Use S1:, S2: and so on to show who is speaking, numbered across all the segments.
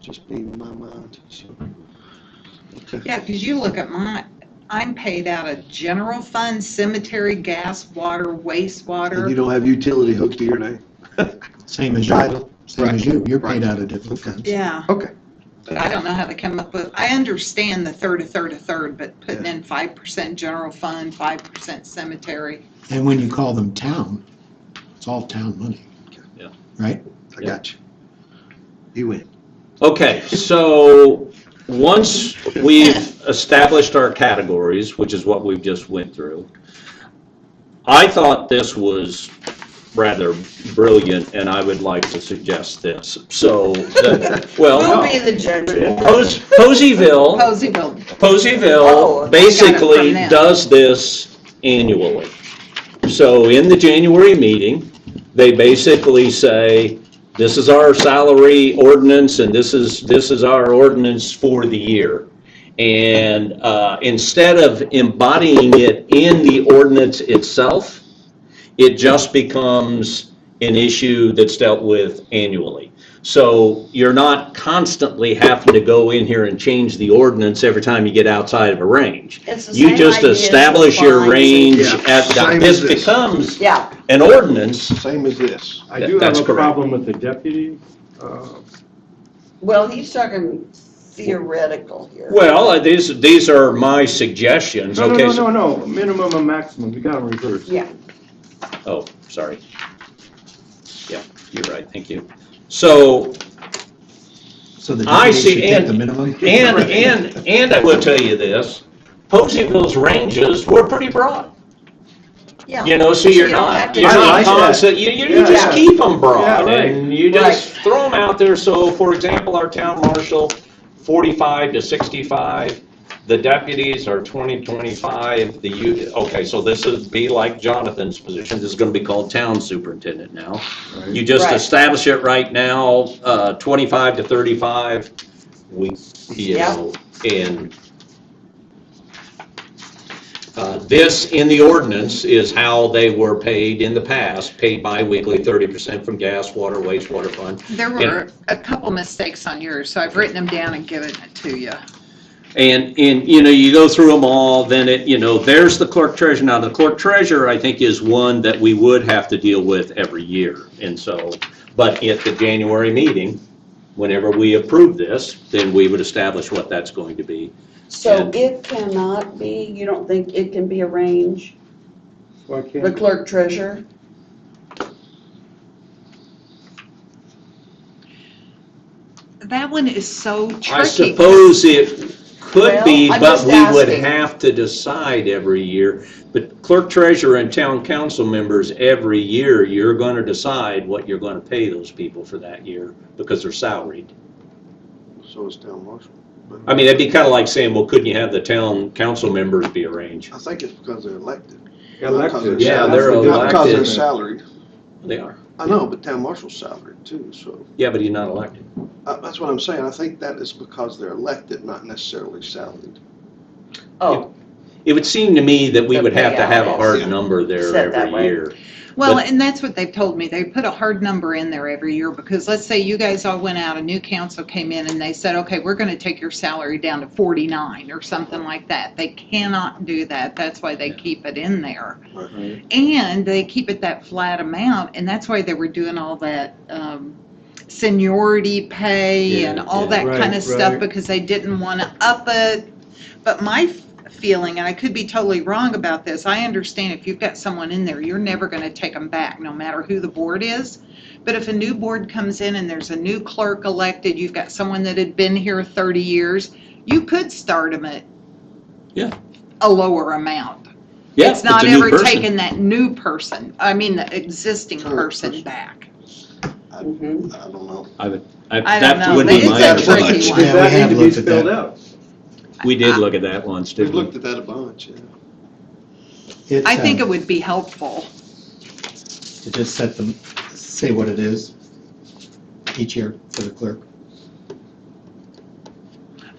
S1: just be my mind, so. Okay.
S2: Yeah, because you look at my, I'm paid out of general fund, cemetery, gas, water,
S1: And you
S2: wastewater.
S1: don't have utility hooked to your name?
S3: Same as you,
S1: Title.
S3: same as you, you're paid
S1: Right.
S3: out of different funds.
S2: Yeah,
S1: Okay.
S2: but I don't know how they come up with, I understand the third, a third, a third, but putting
S1: Yeah.
S2: in five percent general fund, five percent cemetery.
S3: And when you call them town, it's all town money.
S4: Yeah.
S3: Right?
S1: I got you. You win.
S4: Okay, so once we've established our categories, which is what we've just went through, I thought this was rather brilliant, and I would like to suggest this. So, the- well,
S5: We'll be
S4: no.
S5: the judge. of that.
S4: Pos- Poseyville,
S2: Poseyville,
S5: Oh, I got it
S4: Poseyville
S5: from
S4: basically
S2: them.
S4: does this annually. So in the January meeting, they basically say, this is our salary ordinance, and this is, this is our ordinance for the year. And uh, instead of embodying it in the ordinance itself, it just becomes an issue that's dealt with annually. So you're not constantly having to go in here and change the ordinance every time you get outside of a range.
S5: It's the
S4: You
S5: same
S4: just
S5: idea as the
S4: establish your
S5: fines.
S4: range
S1: Yeah,
S4: at,
S1: same
S4: this
S1: as this.
S4: becomes
S5: Yeah,
S4: an ordinance.
S1: Same as this.
S6: I
S4: That-
S6: do have
S4: that's
S6: a
S4: correct.
S6: problem with the deputy. uh,
S5: well, he's talking theoretical here.
S4: Well, uh, these, these are my suggestions,
S6: No, no,
S4: okay?
S6: no,
S4: so-
S6: no, no, minimum and maximum, we got them reversed.
S5: Yeah,
S4: Oh, sorry. Yeah, you're right, thank you. So,
S3: So the
S4: I
S3: deputy
S4: see,
S3: should take
S4: and-
S3: the minimum?
S4: and, and, and I will tell you this, Poseyville's ranges were pretty broad.
S5: yeah.
S4: You know, so you're
S5: you don't
S4: not,
S5: have to-
S4: you're
S6: I
S4: not
S6: like that.
S4: constant, you, you you
S6: Yeah.
S4: just keep them broad,
S6: Yeah, right.
S4: and you just throw them out there, so, for example, our town marshal, forty-five to sixty-five, the deputies are twenty, twenty-five, the you, okay, so this would be like Jonathan's position, this is gonna be called town superintendent now. You just
S5: Right.
S4: establish it right now, uh, twenty-five to thirty-five, we, you
S5: Yeah.
S4: know, and uh, This, in the ordinance, is how they were paid in the past, paid bi-weekly, 30% from gas, water, wastewater fund.
S2: there
S4: Yeah.
S2: were a couple mistakes on yours, so I've written them down and given it to you.
S4: And, and, you know, you go through them all, then it, you know, there's the clerk treasurer. Now, the clerk treasurer, I think, is one that we would have to deal with every year. And so, but at the January meeting, whenever we approve this, then we would establish what that's going to be.
S5: So
S4: and-
S5: it cannot be, you don't think it can be arranged,
S6: Why
S5: the
S6: can't,
S5: clerk treasurer?
S2: That one is so tricky.
S4: I suppose it could be,
S5: Well, I'm
S4: but
S5: just
S4: we would
S5: asking.
S4: have to decide every year. But clerk treasurer and town council members, every year, you're gonna decide what you're gonna pay those people for that year because they're salaried.
S1: So is town marshal. but-
S4: I mean, that'd be kinda like saying, well, couldn't you have the town council members be arranged?
S1: I think it's because they're elected. not because
S6: elected.
S1: they're
S4: Yeah,
S1: salaried.
S4: they're
S6: That's the
S1: Not because they're
S4: elected.
S1: salaried.
S4: They are.
S1: I know, but town marshal's salaried too, so.
S4: Yeah, but he's not elected.
S1: Uh, That's what I'm saying. I think that is because they're elected, not necessarily salaried.
S5: Oh,
S4: It would seem to me that we
S5: The
S4: would have to have a
S5: payout
S1: is-
S4: hard number there
S5: Set that
S4: every
S5: way.
S4: year.
S2: Well,
S4: But-
S2: and that's what they've told me. They put a hard number in there every year because let's say you guys all went out, a new council came in and they said, okay, we're going to take your salary down to 49 or something like that. They cannot do that. That's why they keep it in there.
S1: Right.
S2: And they keep it that flat amount. And that's why they were doing all that um, seniority pay and
S4: Yeah,
S2: all
S4: yeah.
S2: that kind
S6: Right,
S2: of stuff
S6: right.
S2: because they didn't want to up it. But my f- feeling, and I could be totally wrong about this, I understand if you've got someone in there, you're never going to take them back, no matter who the board is. But if a new board comes in and there's a new clerk elected, you've got someone that had been here 30 years, you could start them at
S4: Yeah.
S2: a lower amount.
S4: Yeah,
S2: It's not
S4: a new
S2: ever
S4: person.
S2: taking that new person, I mean, the existing
S1: Current
S2: person
S1: person.
S2: back.
S5: mhm.
S1: I don't know.
S4: I-
S2: I don't
S4: That
S2: know.
S4: would
S2: They-
S4: be
S2: It's
S4: my
S2: a
S1: understanding.
S2: tricky
S6: Does
S3: Yeah,
S2: one.
S3: we
S6: that
S3: have
S6: need to be
S3: looked at
S6: spelled
S3: that.
S6: out?
S4: We did look at that once,
S1: We've
S4: didn't we?
S1: looked at that a bunch, yeah.
S3: It's,
S2: I think
S3: uh,
S2: it would be helpful.
S3: To just set them, say what it is each year for the clerk.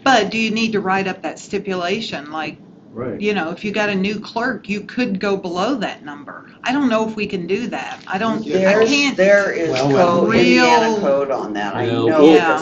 S2: But do you need to write up that stipulation? Like,
S6: Right.
S2: you know, if you got a new clerk, you could go below that number. I don't know if we can do that. I don't, I
S5: There's,
S2: can't.
S5: there is
S3: Well, well.
S5: code, Indiana
S2: Real-
S5: code on that, I
S4: Well,
S5: know
S2: Yeah.
S5: this.